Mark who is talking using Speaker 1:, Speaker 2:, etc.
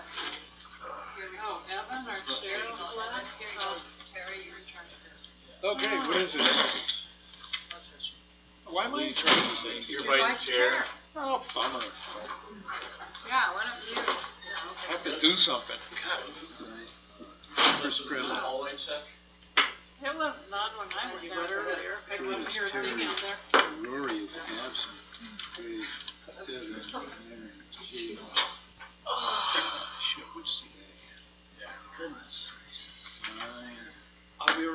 Speaker 1: Evan or Cheryl, Clark, oh, Terry, you're in charge of this.
Speaker 2: Okay, what is it? Why am I in charge of things?
Speaker 3: Your vice chair.
Speaker 2: Oh, bummer.
Speaker 1: Yeah, why don't you?
Speaker 2: I have to do something. First prison.
Speaker 1: It was not when I was there earlier. I wasn't here, I was down there.
Speaker 2: Rory is absent.